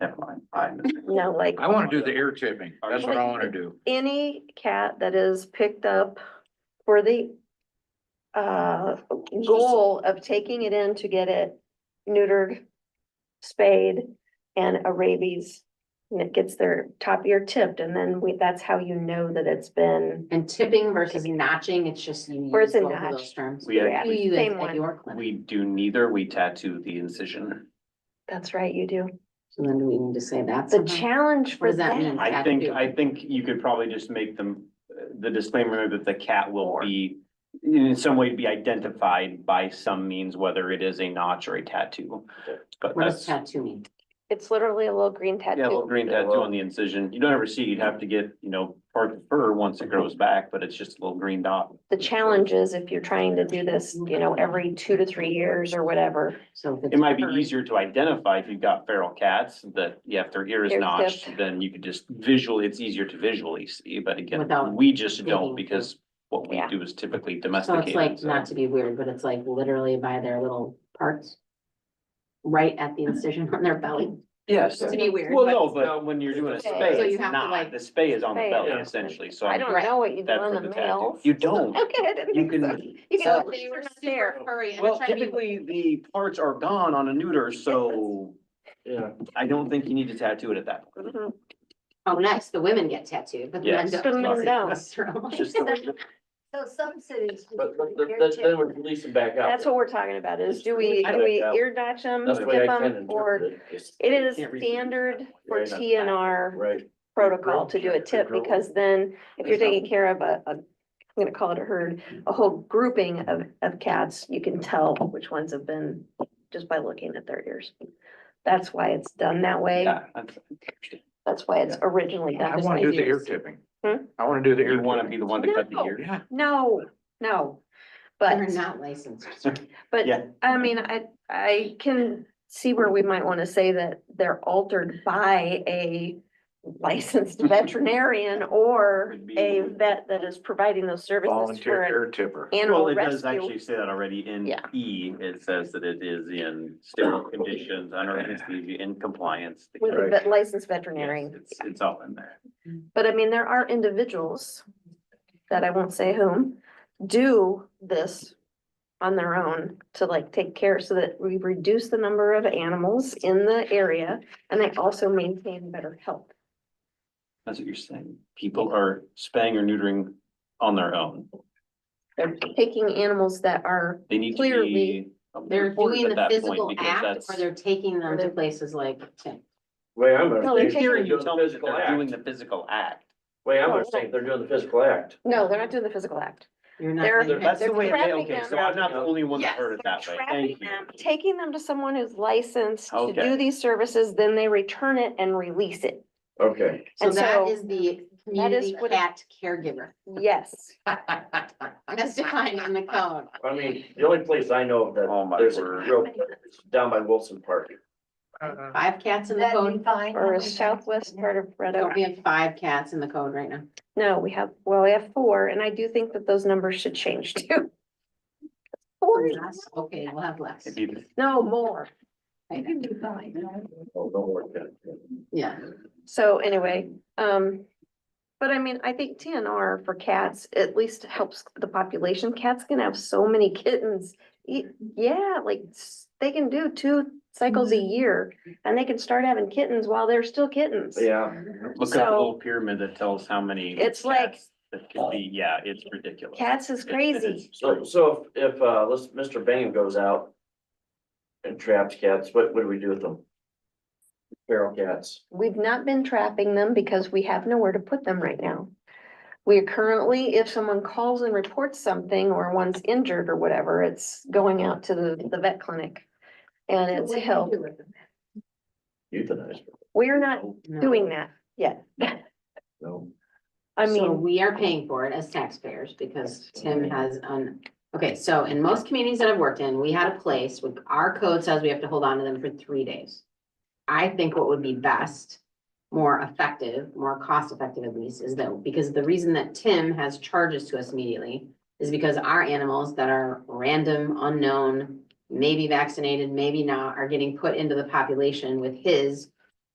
No, like I wanna do the ear tipping. That's what I wanna do. any cat that is picked up for the uh, goal of taking it in to get it neutered, spayed, and a rabies, and it gets their top ear tipped, and then we, that's how you know that it's been, And tipping versus notching, it's just you Or use is it both of notch? those terms. We Yeah. Do actually, you Same at- at one. your clinic? we do neither, we tattoo the incision. that's right, you do. So then do we need to say that? Uh-huh. The somehow? challenge What for does that mean? that, I think, Tattoo. I think you could probably just make them, uh, the disclaimer that the cat will be. In some way be identified by some means, whether it is a notch or a tattoo. But What does that's, yeah, tattoo mean? it's literally a little green a little tattoo. green tattoo on the incision, you don't ever see, you'd have to get, you know, part of the fur once it grows back, but it's just a little green dot. The challenge is if you're trying to do this, you know, every two to three years or whatever. So if it's. It might be furry, easier to identify if you've got feral cats that, yeah, if their ear is Ear notched, tipped. then you could just visually, it's easier to visually see, but again, Without we just digging don't because what we Yeah. do is typically So it's domesticated, like, so. not to be weird, but it's like literally by their little parts. Right at the incision on their belly. Yes. To be weird. Well, no, but when you're doing a Okay. spay, So you it's have to, not, like- the spay is on the Spay belly it. essentially, so. I I'm- don't know what you do That's on for the the tattoo. males. You don't. Okay, I didn't You think so. can- You So can, if they they were were not super there. furry and they're Well, trying to be- typically, the parts are gone on a neuter, so Yeah. I don't think you need to tattoo it at that point. Mhm. Oh, nice, the women get tattooed, but the men Yes. don't. The men don't. It's just the way that- So some cities. we But, but, do but hair then- tip. then we're releasing back out. That's what we're talking about is do we, I do don't we doubt. ear notch them, That's the way I skip can them, or interpret it. is- it is Can't read standard for Right. TNR Right. protocol to do a tip because then if you're taking care of a, a, I'm gonna call it a herd, a whole grouping of, of cats, you can tell which ones have been just by looking at their ears. That's why it's done that way. Yeah, that's- That's why it's originally I done. wanna do the ear tipping. Hmm? I wanna do the ear. You wanna be the one to cut the No. ear. Yeah, No, no, but. They're not licensed. But Yeah. I mean, I, I can see where we might want to say that they're altered by a licensed veterinarian or Would be- a vet that is providing those services volunteer for ear tipper. an Well, animal it does rescue. actually say that already in Yeah. E, it says that it is in sterile conditions, under anesthesia, in compliance. With a Yes, vet- licensed veterinarian. It's, it's all in there. But I mean, there are individuals that I won't say whom do this on their own to like take care so that we reduce the number of animals in the area and they also maintain better health. That's what you're saying. People are spaying or neutering on their own. They're taking animals that are, They need to Clearly, be. They're reported doing at the that point physical because act or that's- they're taking them to They're- places like Tim. Way I'm No, gonna they're say. In is taking- theory, they're you doing tell me the that physical they're doing act. the physical act. Way I'm gonna say, they're doing the physical act. no, they're not doing the physical act. You're not. They're- doing that. That's the they're way, they- trapping okay, them. so I'm not the only one that Yes, heard it that way. Trapping Thank them, you. taking them to someone who's licensed to do Okay. these services, then they return it and release it. Okay. So And that so- is the That is community what it- cat caregiver. Yes, That's defined in the code. Uh-huh. I mean, the only place I know of Oh, that my there's a word. real, is down by Wilson Park. Five cats in the That'd be code. fine. or a southwest part of Red Oak. We have five cats in the code right now. No, we have, well, we have four, and I do think that those numbers should change too. Four, Less? Okay, we'll have less. If you- no, more. You can do fine. Oh, don't worry about it. Yeah. So anyway, um, but I mean, I think TNR for cats at least helps the population. Cats can have so many kittens. Y- Yeah, like s- they can do two cycles a year and they can start having kittens while they're still kittens. Yeah. Look at the So- little pyramid that tells how many. It's like- cats That could be, yeah, it's ridiculous. Cats is It- it is crazy. So, so if, if, uh, let's, Mr. Bingham goes out and traps cats, what, what do we do with them? Feral cats. We've not been trapping them because we have nowhere to put them right now. We are currently, if someone calls and reports something or one's injured or whatever, it's going out to the, the vet clinic. And it's held. Euthanized. We're not doing that yet. No. I So mean, we are paying for it as taxpayers because Tim has an, okay, so in most communities that I've worked in, we had a place with, our code says we have to hold on to them for three days. I think what would be best, more effective, more cost effective at least, is that, because the reason that Tim has charges to us immediately is because our animals that are random, unknown, maybe vaccinated, maybe not, are getting put into the population with his